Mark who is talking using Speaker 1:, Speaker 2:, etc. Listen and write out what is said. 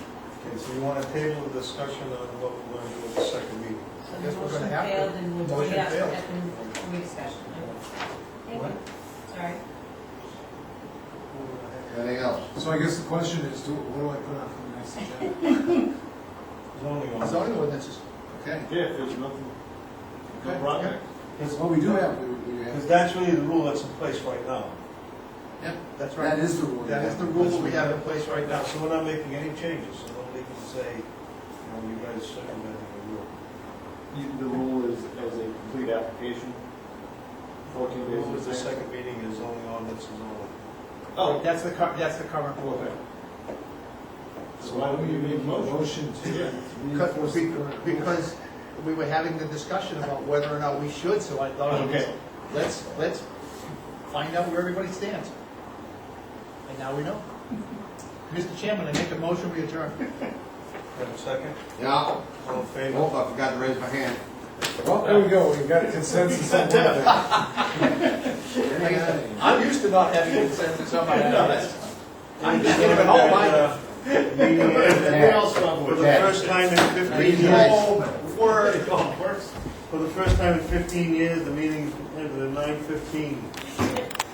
Speaker 1: Okay, so you want to table the discussion on what we're going to do at the second meeting?
Speaker 2: So
Speaker 3: I
Speaker 2: the
Speaker 3: guess we're
Speaker 2: motion
Speaker 3: gonna have to-
Speaker 2: failed and we'll
Speaker 3: motion
Speaker 2: be asked
Speaker 3: failed.
Speaker 2: at the rediscussion. Thank
Speaker 3: What?
Speaker 2: you, sorry.
Speaker 4: Anything else?
Speaker 3: So I guess the question is, do, what do I put on for the next agenda?
Speaker 1: Zoning
Speaker 4: The
Speaker 1: on.
Speaker 4: Zoning ordinances, okay.
Speaker 1: Yeah, if there's nothing,
Speaker 4: Okay,
Speaker 1: project.
Speaker 3: Well, we do have, we, we
Speaker 1: Because
Speaker 3: have,
Speaker 1: that's really the rule that's in place right now.
Speaker 4: Yep.
Speaker 1: That's
Speaker 3: that
Speaker 1: right.
Speaker 3: is the rule.
Speaker 1: That is the rule that we have in place right now, so we're not making any changes, so nobody can say, you know, you guys circumvented the rule.
Speaker 5: You- The rule is as a complete application,
Speaker 1: The
Speaker 5: fourteen days.
Speaker 1: rule
Speaker 5: in
Speaker 1: is the
Speaker 5: advance.
Speaker 1: second meeting is only on, this is only.
Speaker 5: Oh, that's the, cur- that's the current rule then.
Speaker 3: So why don't we make a motion
Speaker 5: Yeah.
Speaker 3: to
Speaker 4: Because,
Speaker 3: reinforce the current rule?
Speaker 4: because we were having the discussion about whether or not we should, so I thought,
Speaker 5: Okay.
Speaker 4: let's, let's find out where everybody stands. And now we know. Mr. Chairman, I make a motion, we adjourn.
Speaker 1: Have a second?
Speaker 6: Yeah,
Speaker 1: All in
Speaker 6: I
Speaker 4: Oh,
Speaker 1: favor?
Speaker 6: hope I forgot to raise my hand.
Speaker 3: Well, there we go, we got consensus on that.
Speaker 4: I'm used to not having consensus on my hands. I'm just giving all oh, my,
Speaker 1: Meeting- For the first time in fifteen years,
Speaker 4: whole word.
Speaker 1: for the first time in fifteen years, the meeting ended at nine fifteen.